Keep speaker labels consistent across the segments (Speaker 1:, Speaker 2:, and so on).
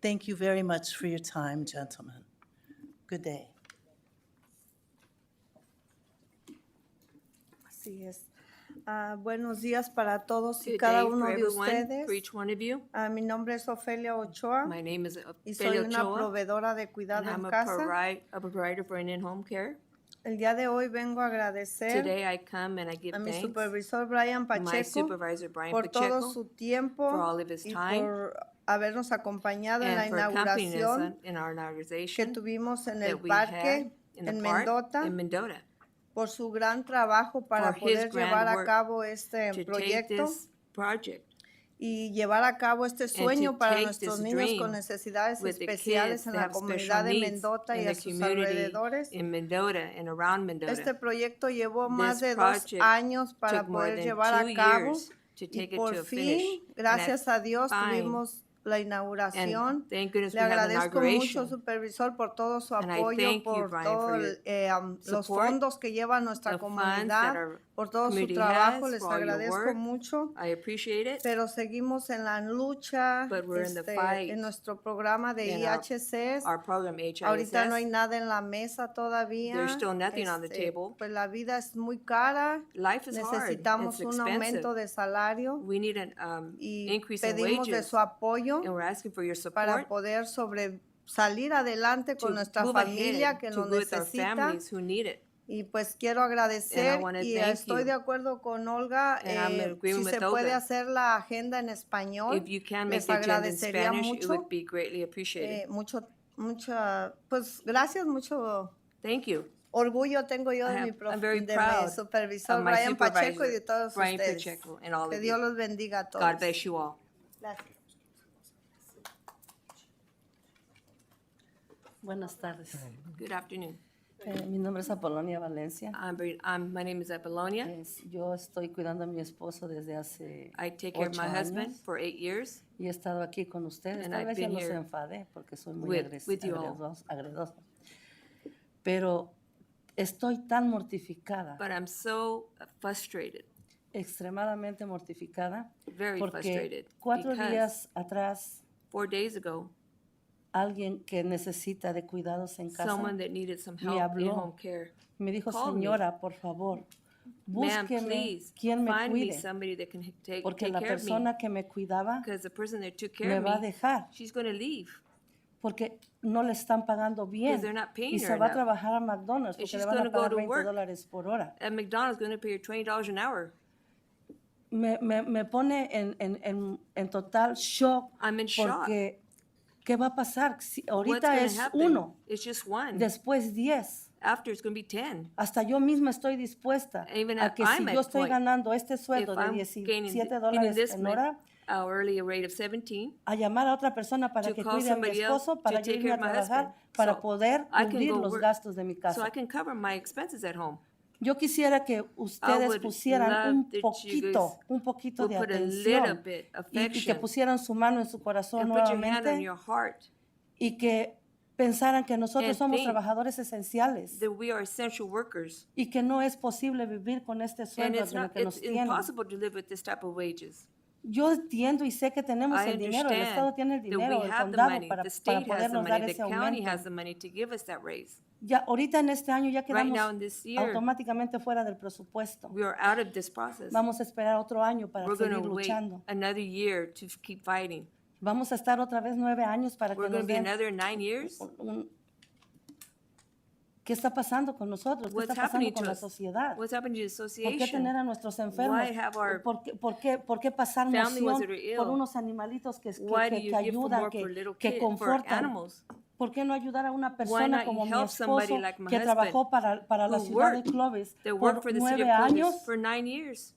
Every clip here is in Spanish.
Speaker 1: Thank you very much for your time, gentlemen. Good day.
Speaker 2: Así es. Ah, buenos días para todos y
Speaker 3: Good
Speaker 2: cada
Speaker 3: day
Speaker 2: uno
Speaker 3: for
Speaker 2: de
Speaker 3: everyone, for
Speaker 2: ustedes.
Speaker 3: each one of you.
Speaker 2: Ah, mi nombre es Ofelia Ochoa
Speaker 3: My name is uh,
Speaker 2: y soy
Speaker 3: Ophelia
Speaker 2: una
Speaker 3: Ochoa,
Speaker 2: proveedora de
Speaker 3: and
Speaker 2: cuidado
Speaker 3: I'm
Speaker 2: en
Speaker 3: a
Speaker 2: casa.
Speaker 3: provi- a provider for In-N Home Care.
Speaker 2: El día de hoy vengo a agradecer
Speaker 3: Today I come and I give
Speaker 2: a mi
Speaker 3: thanks
Speaker 2: supervisor Brian
Speaker 3: to my
Speaker 2: Pacheco
Speaker 3: supervisor Brian
Speaker 2: por todo
Speaker 3: Pacheco
Speaker 2: su tiempo
Speaker 3: for all of his
Speaker 2: y
Speaker 3: time
Speaker 2: por habernos acompañado en la
Speaker 3: and for accompanying us
Speaker 2: inauguración
Speaker 3: on- in our
Speaker 2: que
Speaker 3: inauguration
Speaker 2: tuvimos en el
Speaker 3: that we had
Speaker 2: parque
Speaker 3: in the
Speaker 2: en
Speaker 3: park
Speaker 2: Mendota
Speaker 3: in Mendota
Speaker 2: por su gran trabajo para
Speaker 3: his
Speaker 2: poder
Speaker 3: grand
Speaker 2: llevar a
Speaker 3: work
Speaker 2: cabo este
Speaker 3: to take
Speaker 2: proyecto.
Speaker 3: this project
Speaker 2: y llevar a cabo este
Speaker 3: to
Speaker 2: sueño para
Speaker 3: take
Speaker 2: nuestros
Speaker 3: this
Speaker 2: niños
Speaker 3: dream
Speaker 2: con necesidades
Speaker 3: with the
Speaker 2: especiales
Speaker 3: kids
Speaker 2: en
Speaker 3: that
Speaker 2: la
Speaker 3: have
Speaker 2: comunidad
Speaker 3: special
Speaker 2: de
Speaker 3: needs
Speaker 2: Mendota y
Speaker 3: in
Speaker 2: a
Speaker 3: the
Speaker 2: sus
Speaker 3: community
Speaker 2: alrededores.
Speaker 3: in Mendota and around
Speaker 2: Este
Speaker 3: Mendota.
Speaker 2: proyecto llevó más
Speaker 3: This
Speaker 2: de dos
Speaker 3: project
Speaker 2: años para
Speaker 3: took more
Speaker 2: poder
Speaker 3: than
Speaker 2: llevar a
Speaker 3: two
Speaker 2: cabo
Speaker 3: years to
Speaker 2: y
Speaker 3: take it
Speaker 2: por
Speaker 3: to a finish.
Speaker 2: fin,
Speaker 3: And at
Speaker 2: gracias a Dios,
Speaker 3: fine,
Speaker 2: tuvimos la inauguración.
Speaker 3: And thank goodness we
Speaker 2: Le
Speaker 3: had the
Speaker 2: agradezco mucho,
Speaker 3: inauguration.
Speaker 2: supervisor, por todo su
Speaker 3: And I
Speaker 2: apoyo,
Speaker 3: thank you,
Speaker 2: por
Speaker 3: Brian,
Speaker 2: todos
Speaker 3: for your
Speaker 2: los
Speaker 3: support,
Speaker 2: fondos que lleva nuestra
Speaker 3: the funds that
Speaker 2: comunidad,
Speaker 3: our
Speaker 2: por todo su
Speaker 3: community
Speaker 2: trabajo.
Speaker 3: has,
Speaker 2: Les
Speaker 3: for all your
Speaker 2: agradezco
Speaker 3: work.
Speaker 2: mucho.
Speaker 3: I appreciate it.
Speaker 2: Pero seguimos en la lucha,
Speaker 3: But we're in the
Speaker 2: este,
Speaker 3: fight
Speaker 2: en nuestro programa de
Speaker 3: in our-
Speaker 2: IHCs.
Speaker 3: Our program HISS,
Speaker 2: Ahorita no hay nada en la mesa todavía.
Speaker 3: There's still nothing on the
Speaker 2: Este,
Speaker 3: table.
Speaker 2: Pues la vida es muy cara.
Speaker 3: life is hard. It's
Speaker 2: Necesitamos un aumento
Speaker 3: expensive.
Speaker 2: de salario
Speaker 3: We need an um,
Speaker 2: y
Speaker 3: increase in
Speaker 2: pedimos de
Speaker 3: wages.
Speaker 2: su apoyo
Speaker 3: And we're asking for your
Speaker 2: para
Speaker 3: support
Speaker 2: poder sobre salir adelante
Speaker 3: to
Speaker 2: con nuestra
Speaker 3: move
Speaker 2: familia
Speaker 3: ahead,
Speaker 2: que
Speaker 3: to
Speaker 2: lo
Speaker 3: go with our
Speaker 2: necesita.
Speaker 3: families who need it.
Speaker 2: Y pues quiero agradecer
Speaker 3: wanna
Speaker 2: y
Speaker 3: thank
Speaker 2: estoy
Speaker 3: you.
Speaker 2: de acuerdo con Olga.
Speaker 3: And I'm
Speaker 2: eh,
Speaker 3: in
Speaker 2: si
Speaker 3: agreement
Speaker 2: se
Speaker 3: with
Speaker 2: puede
Speaker 3: Olga.
Speaker 2: hacer la agenda en español,
Speaker 3: If you can make
Speaker 2: les
Speaker 3: the agenda in
Speaker 2: agradecería
Speaker 3: Spanish, it
Speaker 2: mucho.
Speaker 3: would be greatly appreciated.
Speaker 2: eh, mucho, mucha, pues gracias, mucho
Speaker 3: Thank you.
Speaker 2: orgullo tengo yo
Speaker 3: I
Speaker 2: de mi,
Speaker 3: am-
Speaker 2: prof-
Speaker 3: I'm very
Speaker 2: de mi
Speaker 3: proud
Speaker 2: supervisor
Speaker 3: of my
Speaker 2: Brian Pacheco y de
Speaker 3: supervisor,
Speaker 2: todos
Speaker 3: Brian
Speaker 2: ustedes.
Speaker 3: Pacheco, and all
Speaker 2: que
Speaker 3: of
Speaker 2: Dios
Speaker 3: you.
Speaker 2: los bendiga a todos.
Speaker 3: God bless you all.
Speaker 2: Gracias.
Speaker 4: Buenas tardes.
Speaker 3: Good afternoon.
Speaker 4: Eh, mi nombre es Apolonia Valencia.
Speaker 3: I'm, Bri- I'm, my name is
Speaker 2: Eh,
Speaker 3: Apollonia.
Speaker 4: Es- yo estoy cuidando a mi esposo desde hace
Speaker 3: I take care of
Speaker 4: ocho
Speaker 3: my husband
Speaker 4: años
Speaker 3: for eight years.
Speaker 4: y he estado aquí con ustedes.
Speaker 3: And
Speaker 4: Tal
Speaker 3: I've
Speaker 4: vez ya
Speaker 3: been
Speaker 4: los
Speaker 3: here
Speaker 4: enfadé porque soy muy
Speaker 3: with-
Speaker 4: agres-
Speaker 3: with you all.
Speaker 4: agredos- agredosa. Pero estoy tan mortificada,
Speaker 3: But I'm so frustrated,
Speaker 4: extremadamente mortificada,
Speaker 3: very frustrated.
Speaker 4: porque cuatro
Speaker 3: because
Speaker 4: días atrás
Speaker 3: four days ago,
Speaker 4: alguien que necesita de cuidados en casa
Speaker 3: someone that needed some
Speaker 4: me
Speaker 3: help in
Speaker 4: habló.
Speaker 3: home care.
Speaker 4: me dijo,
Speaker 3: called me.
Speaker 4: señora, por favor,
Speaker 3: Ma'am,
Speaker 4: búsqueme
Speaker 3: please,
Speaker 4: quien me
Speaker 3: find me
Speaker 4: cuide.
Speaker 3: somebody that can take,
Speaker 4: porque
Speaker 3: take
Speaker 4: la
Speaker 3: care of me.
Speaker 4: persona que me cuidaba
Speaker 3: Because the person that took care
Speaker 4: me va a
Speaker 3: of me,
Speaker 4: dejar,
Speaker 3: she's gonna leave.
Speaker 4: porque no le están pagando bien.
Speaker 3: they're not paying
Speaker 4: Y
Speaker 3: her
Speaker 4: se va a
Speaker 3: enough.
Speaker 4: trabajar a
Speaker 3: And
Speaker 4: McDonald's porque
Speaker 3: she's
Speaker 4: le van
Speaker 3: gonna
Speaker 4: a
Speaker 3: go
Speaker 4: pagar
Speaker 3: to
Speaker 4: 20
Speaker 3: work.
Speaker 4: dólares por hora.
Speaker 3: At McDonald's, gonna pay her twenty dollars an hour.
Speaker 4: Me, me- me pone en, en- en- en total shock
Speaker 3: I'm in shock.
Speaker 4: porque ¿qué va a pasar? Si
Speaker 3: What's
Speaker 4: ahorita
Speaker 3: gonna
Speaker 4: es
Speaker 3: happen?
Speaker 4: uno,
Speaker 3: It's just one.
Speaker 4: después diez.
Speaker 3: After, it's gonna be ten.
Speaker 4: Hasta yo misma estoy dispuesta
Speaker 3: Even
Speaker 4: a
Speaker 3: at-
Speaker 4: que si
Speaker 3: I'm
Speaker 4: yo
Speaker 3: at
Speaker 4: estoy
Speaker 3: point.
Speaker 4: ganando este
Speaker 3: If
Speaker 4: sueldo de
Speaker 3: I'm gaining
Speaker 4: 17
Speaker 3: gaining
Speaker 4: dólares
Speaker 3: this
Speaker 4: en hora,
Speaker 3: much, hourly rate of seventeen,
Speaker 4: a llamar a otra persona para
Speaker 3: to
Speaker 4: que
Speaker 3: call
Speaker 4: cuide a mi
Speaker 3: somebody else
Speaker 4: esposo,
Speaker 3: to
Speaker 4: para yo
Speaker 3: take
Speaker 4: irme
Speaker 3: care
Speaker 4: a
Speaker 3: of my
Speaker 4: trabajar,
Speaker 3: husband.
Speaker 4: para
Speaker 3: So,
Speaker 4: poder
Speaker 3: I can
Speaker 4: cubrir
Speaker 3: go
Speaker 4: los
Speaker 3: work.
Speaker 4: gastos de mi
Speaker 3: so
Speaker 4: casa.
Speaker 3: I can cover my expenses at home.
Speaker 4: Yo quisiera que ustedes
Speaker 3: would
Speaker 4: pusieran
Speaker 3: love
Speaker 4: un
Speaker 3: that you
Speaker 4: poquito,
Speaker 3: guys
Speaker 4: un poquito de
Speaker 3: would put a little
Speaker 4: atención
Speaker 3: bit
Speaker 4: y- y, que
Speaker 3: affection
Speaker 4: pusieran su mano en su corazón
Speaker 3: And put your hand on
Speaker 4: nuevamente
Speaker 3: your heart
Speaker 4: y que pensaran que nosotros
Speaker 3: and
Speaker 4: somos
Speaker 3: think
Speaker 4: trabajadores esenciales
Speaker 3: that we are essential workers.
Speaker 4: y que no es posible vivir con este
Speaker 3: And
Speaker 4: sueldo
Speaker 3: it's
Speaker 4: de lo
Speaker 3: not,
Speaker 4: que
Speaker 3: it's
Speaker 4: nos tienen.
Speaker 3: impossible to live with this type of wages.
Speaker 4: Yo entiendo y sé que tenemos
Speaker 3: I
Speaker 4: el dinero, el Estado
Speaker 3: understand
Speaker 4: tiene el
Speaker 3: that
Speaker 4: dinero,
Speaker 3: we
Speaker 4: el
Speaker 3: have the
Speaker 4: condado
Speaker 3: money,
Speaker 4: para,
Speaker 3: the
Speaker 4: para
Speaker 3: state has the
Speaker 4: podernos dar
Speaker 3: money,
Speaker 4: ese
Speaker 3: the county
Speaker 4: aumento.
Speaker 3: has the money to give us that raise.
Speaker 4: Ya ahorita en este año ya
Speaker 3: Right
Speaker 4: quedamos
Speaker 3: now in this year,
Speaker 4: automáticamente fuera del presupuesto.
Speaker 3: we are out of this process.
Speaker 4: Vamos a esperar otro año para
Speaker 3: We're gonna
Speaker 4: seguir
Speaker 3: wait
Speaker 4: luchando.
Speaker 3: another year to f- keep fighting.
Speaker 4: Vamos a estar otra vez nueve años para
Speaker 3: We're
Speaker 4: que
Speaker 3: gonna
Speaker 4: nos
Speaker 3: be
Speaker 4: den
Speaker 3: another nine years.
Speaker 4: un- ¿Qué está pasando con nosotros? ¿Qué
Speaker 3: What's
Speaker 4: está pasando
Speaker 3: happening
Speaker 4: con
Speaker 3: to
Speaker 4: la
Speaker 3: us?
Speaker 4: sociedad?
Speaker 3: What's happening to the
Speaker 4: ¿Por qué tener
Speaker 3: association?
Speaker 4: a nuestros enfermos?
Speaker 3: Why have our
Speaker 4: ¿Por qué, por qué, por qué pasar
Speaker 3: families
Speaker 4: nación
Speaker 3: that are
Speaker 4: por
Speaker 3: ill?
Speaker 4: unos animalitos que, que,
Speaker 3: Why do you
Speaker 4: que- que
Speaker 3: give for
Speaker 4: ayudan,
Speaker 3: more for
Speaker 4: que,
Speaker 3: little
Speaker 4: que
Speaker 3: kid, for
Speaker 4: confortan?
Speaker 3: animals?
Speaker 4: ¿Por qué no ayudar a una persona
Speaker 3: not
Speaker 4: como mi
Speaker 3: help somebody
Speaker 4: esposo
Speaker 3: like my
Speaker 4: que
Speaker 3: husband,
Speaker 4: trabajó para, para la
Speaker 3: who
Speaker 4: ciudad de
Speaker 3: worked-
Speaker 4: Clovis
Speaker 3: They work for
Speaker 4: por
Speaker 3: the city
Speaker 4: nueve
Speaker 3: of
Speaker 4: años,
Speaker 3: Clovis for nine years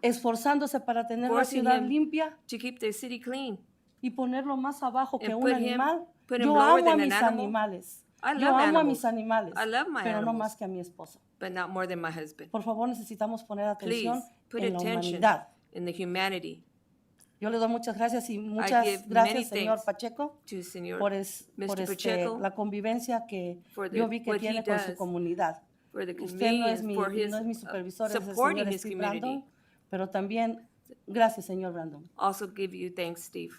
Speaker 4: esforzándose para tener la
Speaker 3: forcing
Speaker 4: ciudad
Speaker 3: him
Speaker 4: limpia?
Speaker 3: to keep their city clean.
Speaker 4: y ponerlo más abajo que
Speaker 3: And
Speaker 4: un
Speaker 3: put him-
Speaker 4: animal.
Speaker 3: put him
Speaker 4: Yo
Speaker 3: lower
Speaker 4: amo a
Speaker 3: than an
Speaker 4: mis
Speaker 3: animal.
Speaker 4: animales.
Speaker 3: I love
Speaker 4: Yo amo a
Speaker 3: animals.
Speaker 4: mis animales,
Speaker 3: I love my
Speaker 4: pero no
Speaker 3: animals.
Speaker 4: más que a mi esposo.
Speaker 3: but not more than my husband.
Speaker 4: Por favor, necesitamos poner atención
Speaker 3: Please put
Speaker 4: en la
Speaker 3: attention
Speaker 4: humanidad.
Speaker 3: in the humanity
Speaker 4: Yo le doy muchas gracias y muchas
Speaker 3: give many
Speaker 4: gracias, señor
Speaker 3: thanks
Speaker 4: Pacheco,
Speaker 3: to Senor
Speaker 4: por, es- por
Speaker 3: Mr.
Speaker 4: este,
Speaker 3: Pacheco
Speaker 4: la convivencia que
Speaker 3: for the-
Speaker 4: yo vi que
Speaker 3: what he
Speaker 4: tiene con su
Speaker 3: does.
Speaker 4: comunidad.
Speaker 3: for the
Speaker 4: Usted no es
Speaker 3: convenience,
Speaker 4: mi,
Speaker 3: for his
Speaker 4: no es mi
Speaker 3: uh,
Speaker 4: supervisor, es el
Speaker 3: supporting
Speaker 4: señor
Speaker 3: his
Speaker 4: Steve
Speaker 3: community.
Speaker 4: Brandon, pero también gracias, señor Brandon.
Speaker 3: Also give you thanks, Steve.